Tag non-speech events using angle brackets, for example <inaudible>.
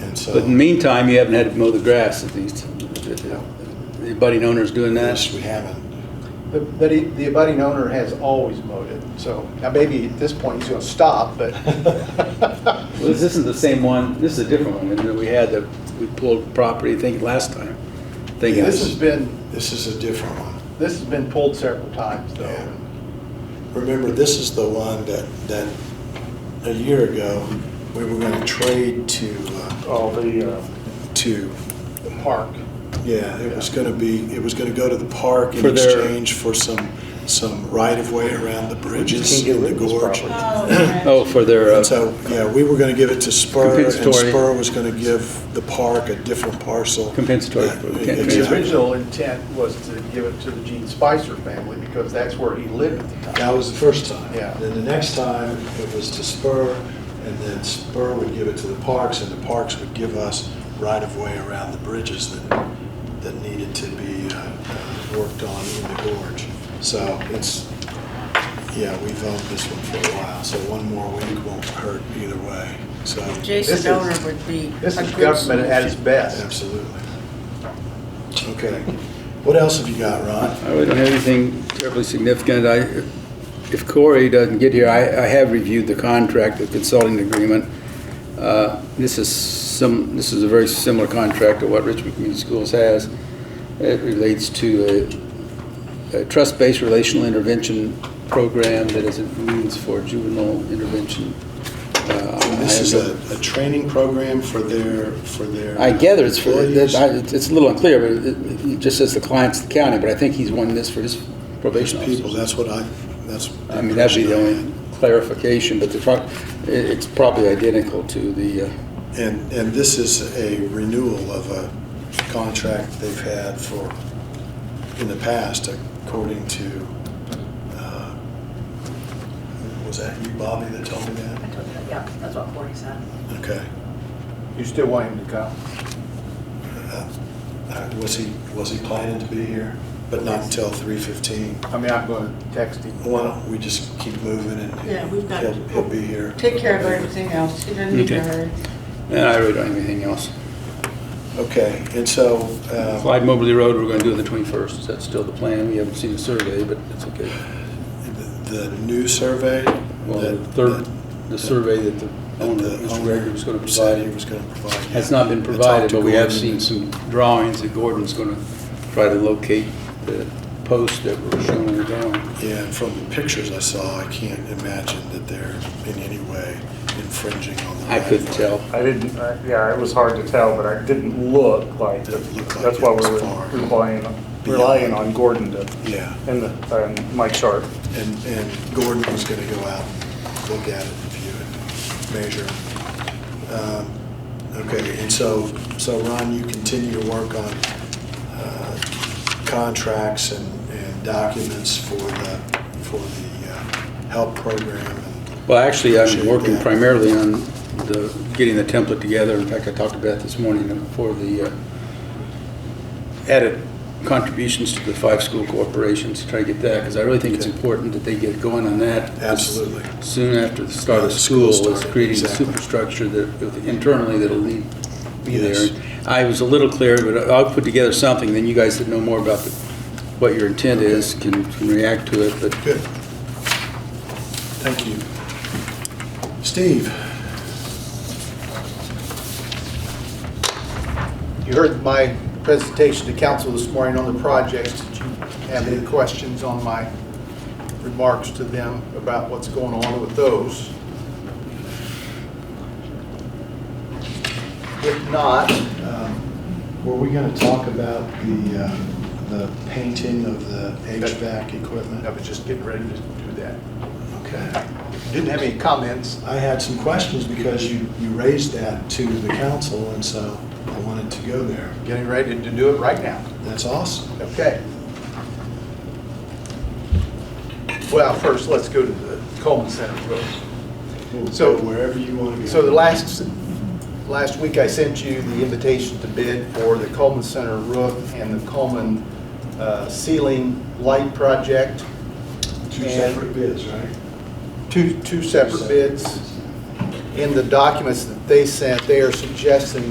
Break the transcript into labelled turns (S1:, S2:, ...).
S1: And
S2: But in the
S1: so,
S2: meantime, you haven't had to mow the grass at least. The abutting owner's doing
S1: yes,
S2: that.
S1: we haven't.
S3: But but he- the abutting owner has always mowed it, so now maybe at this point he's gonna stop, <laughs> but.
S2: Well, this isn't the same one, this is a different one, and we had that, we pulled property, I think, last time. Thinking,
S3: This has been,
S1: This is a different one.
S3: this has been pulled several times
S1: Yeah.
S3: though.
S1: Remember, this is the one that, that a year ago, we were gonna trade to, uh,
S3: Oh, the, uh.
S1: to,
S3: The park.
S1: yeah, it was gonna be, it was gonna go to the park in
S2: For their-
S1: exchange for some, some right-of-way around the bridges
S4: can't get
S1: in the
S4: rid of this
S1: gorge.
S4: property.
S5: Oh,
S2: oh, for their,
S1: And
S2: uh,
S1: so, yeah, we were gonna give it to Spur, and
S2: Compensatory.
S1: Spur was gonna give the park a different parcel.
S2: Compensatory.
S1: Yeah,
S2: The
S3: The
S1: exactly.
S3: original intent was to give it to the Gene Spicer family because that's where he lived at the time.
S1: That was the first time.
S3: Yeah.
S1: Then the next time, it was to Spur, and then Spur would give it to the parks, and the parks would give us right-of-way around the bridges that, that needed to be uh, uh, worked on in the gorge. So it's, yeah, we've owned this one for a while, so one more week won't hurt either way, so.
S3: This is-
S5: Jason Owner would be.
S3: This
S5: a
S3: is
S5: good
S3: government at its
S5: solution.
S3: best.
S1: Absolutely. Okay. What else have you got, Ron?
S2: I really don't have anything terribly significant. I, if Corey doesn't get here, I, I have reviewed the contract, the consulting agreement. Uh, This is some, this is a very similar contract to what Richmond Community Schools has. It relates to a, a trust-based relational intervention program that is a means for juvenile intervention. Uh,
S1: And This is
S2: I-
S1: a, a training program for their, for their.
S2: I gather it's for,
S1: employees.
S2: that- I- it's it's a little unclear, but it- it just says the client's the county, but I think he's won this for his probation officer.
S1: People, that's what I, that's.
S2: I mean, that'd be the only clarification, but the, pro- it- it's probably identical to the, uh,
S1: And, and this is a renewal of a contract they've had for, in the past, according to, uh, was that you, Bobby, that told me that?
S5: I told you, Yeah, that's what Corey said.
S1: Okay.
S3: You still want him to come?
S1: Uh, uh, Was he, was he planning to be here? But not until three fifteen.
S3: I mean, I'm gonna text him.
S1: Why don't we just keep moving and
S5: Yeah, we've got-
S1: he'll, he'll be here.
S5: Take care of everything else. He doesn't need to
S2: Okay.
S5: hurry.
S2: and I really don't have anything else.
S1: Okay, and so, uh,
S2: Clyde Mobley Road, we're gonna do on the 21st, is that still the plan? We haven't seen the survey, but it's okay.
S1: the- the new survey?
S2: Well, the
S1: that-
S2: third,
S1: that-
S2: the survey that the owner,
S1: that the
S2: Mr.
S1: owner
S2: Gregory, was gonna
S1: said he
S2: provide
S1: was gonna provide.
S2: has not been
S1: I talked
S2: provided,
S1: to
S2: but we have
S1: Gordon.
S2: seen some drawings that Gordon's gonna try to locate the posts that were shown in the drawing.
S1: Yeah, and from the pictures I saw, I can't imagine that they're in any way infringing on the.
S2: I couldn't
S1: right-of-way.
S2: tell.
S4: I didn't, I- yeah, it was hard to tell, but I didn't look like,
S1: Didn't look like
S4: that's why
S1: it was
S4: we
S1: far.
S4: were relying, relying on Gordon to,
S1: Yeah,
S4: and the, and Mike Sharp.
S1: and, and Gordon was gonna go out and look at it, view it, measure. Um, Okay, and so, so Ron, you continue to work on uh, contracts and, and documents for the, for the uh, help program and
S2: Well, actually, I'm
S1: Appreciate
S2: working
S1: that.
S2: primarily on the, getting the template together. In fact, I talked to Beth this morning for the uh, added contributions to the five school corporations, to try to get that, because I really think it's
S1: Okay.
S2: important that they get going on that.
S1: Absolutely.
S2: Soon after the start
S1: Yeah,
S2: of
S1: the school
S2: school, was
S1: started,
S2: creating the
S1: exactly.
S2: superstructure that internally that'll lead, be there.
S1: Yes.
S2: I was a little clear, but I'll put together something, then you guys that know more about the- what your intent is can can react to it, but
S1: Good. Thank you. Steve?
S3: You heard my presentation to council this morning on the projects. Did you have any questions on my remarks to them about what's going on with those? If not,
S1: Were we going to talk about the, uh, the painting of the HVAC
S3: I
S1: equipment?
S3: was just getting ready to do that.
S1: Okay.
S3: Didn't have any comments.
S1: I had some questions because you, you raised that to the council, and so I wanted to go there.
S3: Getting ready to do it right now.
S1: That's awesome.
S3: Okay. Well, first, let's go to the Coleman Center first.
S1: We'll go
S3: So-
S1: Wherever you want to go.
S3: So the last, last week I sent you the invitation to bid for the Coleman Center roof and the Coleman uh, ceiling light project.
S1: Two
S3: and-
S1: separate bids, right?
S3: Two, two separate bids. In the documents that they sent, they are suggesting